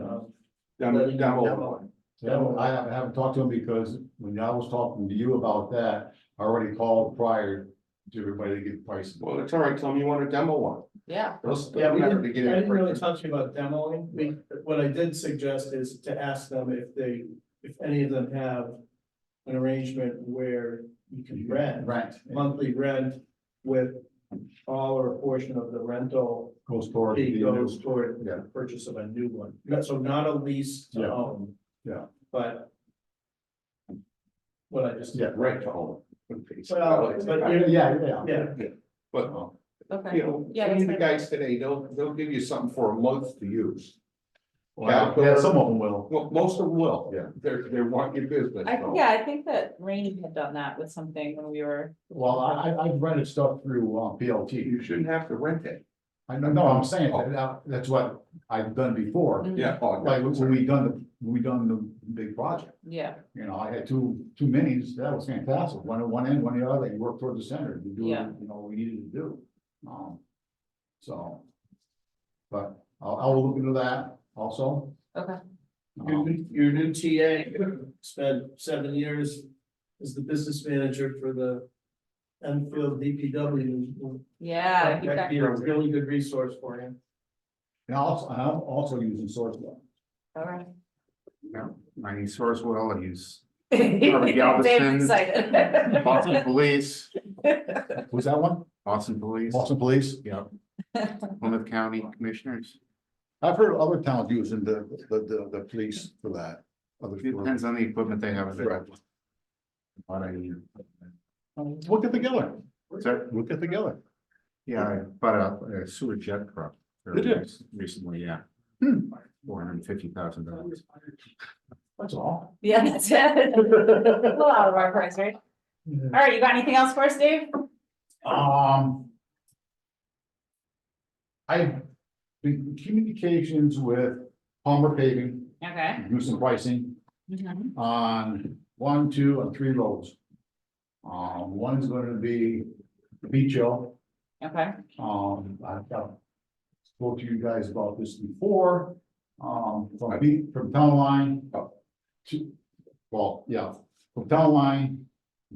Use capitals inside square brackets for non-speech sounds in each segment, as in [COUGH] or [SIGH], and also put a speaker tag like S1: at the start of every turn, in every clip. S1: um,
S2: down, down below.
S1: demo.
S3: No, I haven't, I haven't talked to him because when I was talking to you about that, I already called prior to everybody to get prices.
S2: Well, it's all right, tell them you want a demo one.
S4: Yeah,
S2: Those-
S1: Yeah, we
S2: matter
S1: didn't,
S2: to get
S1: I
S2: it
S1: didn't really
S2: first.
S1: talk to you about demoing, we, what I did suggest is to ask them if they, if any of them have. An arrangement where you can rent,
S3: Rent,
S1: monthly rent with all or a portion of the rental.
S3: goes toward
S1: Fee
S3: the,
S1: goes toward
S3: yeah.
S1: the purchase of a new one, Not- so not a lease to
S3: Yeah.
S1: own.
S3: Yeah.
S1: But. What I just.
S3: yeah,
S2: Right to own.
S1: Well, but
S3: yeah,
S1: you-
S3: yeah, yeah.
S1: Yeah,
S2: But,
S4: okay.
S2: you know,
S4: Yeah,
S2: any of the
S4: that's right.
S2: guys today, they'll, they'll give you something for a month to use.
S3: Well, yeah, some of them will.
S2: Well, most of them will.
S3: Yeah.
S2: They're, they want your business.
S4: I,
S2: so.
S4: yeah, I think that Rainy had done that with something when we were,
S3: Well, I, I, I've rented stuff through, uh,
S2: You
S3: PLT.
S2: shouldn't have to rent it.
S3: I know, no, I'm saying that, that- that's what I've done before,
S4: mm, Mm-hmm.
S2: Yeah. oh,
S3: like
S2: no,
S3: when we done the, when we done the big project.
S4: yeah,
S3: You know, I had two, two minis, that was fantastic, one at one end, one at the other, you work toward the center, you do,
S4: Yeah.
S3: you know, what we needed to do, um, so. But I'll, I'll look into that also.
S4: Okay.
S1: Your
S3: Um,
S1: new, your new TA spent seven years as the business manager for the Enfield DPW.
S4: yeah. he
S1: That'd
S4: got-
S1: be a really good resource for him.
S3: And also, and I'm also using source one.
S4: All right.
S5: No, I use Sourcewell, I use
S4: [LAUGHS] Dave's
S5: Boston
S4: excited. [LAUGHS]
S5: Police,
S3: was that one,
S5: Boston Police,
S3: Boston Police?
S5: yeah. Plymouth County Commissioners.
S3: I've heard other towns using the, the, the, the police for that. Other-
S5: It Depends on the equipment they have. available. But I,
S3: We'll get together,
S5: so,
S3: we'll get together,
S5: yeah, I bought a- a sewer jet truck.
S3: Did you?
S5: Recently, yeah.
S3: Hmm.
S5: Four hundred and fifty thousand dollars.
S3: that's all.
S4: Yeah, that's it. A little out of our price, right? All right, you got anything else for us, Dave?
S3: Um. I've been in communications with Palmer Paving,
S4: Okay.
S3: do some pricing Mm-hmm.
S4: Mhm.
S3: on one, two, and three loads. Um, one's gonna be Beach Hill,
S4: Okay,
S3: um, I've got. Spoke to you guys about this before, um, from Beach, from Town Line. up To, well, yeah, from Town Line,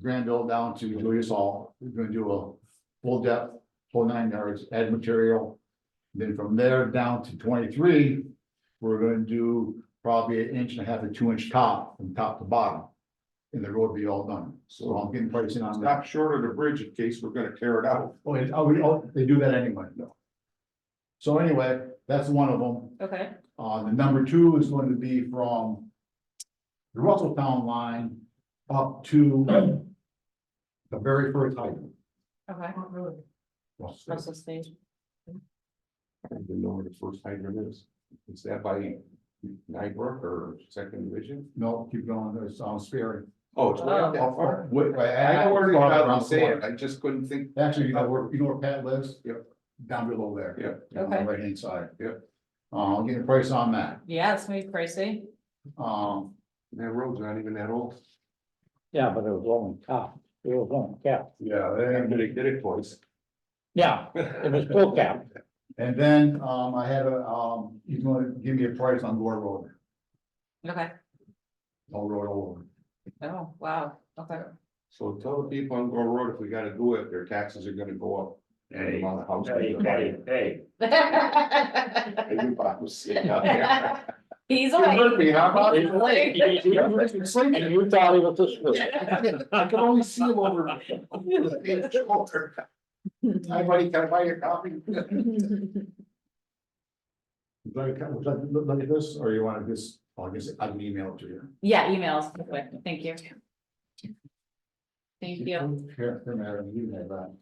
S3: Granville down to Julius Hall, we're gonna do a full depth, full nine yards, add material. Then from there down to twenty-three, we're gonna do probably an inch and a half to two inch top from top to bottom. And the road will be all done, so I'm getting pricing on that.
S2: Stop short of the bridge in case we're gonna tear it out.
S3: Oh, it- oh, we- oh, they do that anyway, no. So anyway, that's one of them.
S4: okay,
S3: Uh, the number two is going to be from the Russell Town line up to the very first hydrant.
S4: okay. Russell Stage.
S2: I don't even know where the first hydrant is. Is that by Nybrook or Second Division?
S3: No, keep going, there's, um, Sperry.
S2: Oh, it's way up that
S3: Off-
S2: far.
S3: wait, wait,
S2: I
S3: I- I-
S2: know where it is, I'm saying, I just couldn't think
S3: Actually, you know where, you know where Pat lives?
S2: Yep.
S3: Down below there.
S2: Yep.
S3: On the
S4: Okay.
S3: right hand side.
S2: Yep.
S3: Uh, I'll get a price on that.
S4: Yeah, that's gonna be crazy.
S3: Um,
S2: that road's not even that old.
S6: Yeah, but it was only cap, it was only cap,
S3: yeah, and-
S2: Everybody did it twice.
S6: yeah, it was full [LAUGHS] cap,
S3: and then, um, I had a, um, he's gonna give me a price on Gore Road,
S4: Okay,
S3: all road over.
S4: oh, wow, okay.
S2: So tell the people on Gore Road, if we gotta do it, their taxes are gonna go up.
S5: Hey,
S2: On the house.
S5: hey.
S2: Everybody was sitting out there.
S4: [LAUGHS] He's
S2: You
S4: away.
S2: heard me, huh, Bob?
S4: He's awake.
S6: and you thought it was this. good.
S2: I can only see him over. over the big shoulder. Hi, buddy, can I buy your coffee?
S4: [LAUGHS]
S3: Would you like, would you like to look- look at this, or you wanna just, I guess I can email it to you.
S4: Yeah, emails, quick, thank you. Thank you.
S3: Here, here, Madam, you have that.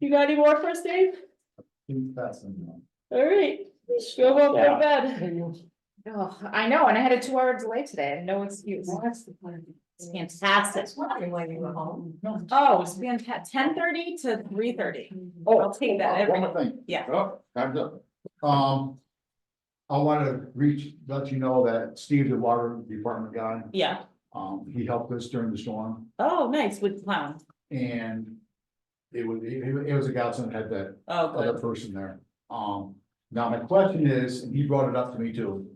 S4: You got any more for us, Dave?
S3: That's in
S4: All right, go home,
S6: Yeah.
S4: go to bed. Oh, I know, and I had a two hour delay today, no excuse. Oh, It's fantastic.
S7: why you were home.
S4: Oh, it's fantastic, ten thirty to three thirty.
S3: Oh,
S4: I'll take that
S3: there.
S4: every
S3: One
S4: day,
S3: more thing.
S4: yeah.
S2: Oh, time's up.
S3: Um, I wanna reach, let you know that Steve, the water department guy,
S4: Yeah,
S3: um, he helped us during the storm
S4: oh, nice, with clown,
S3: and. It was, it was- it was a godsend to have that
S4: oh,
S3: other
S4: good,
S3: person there, um, Now, my question is, and he brought it up to me too,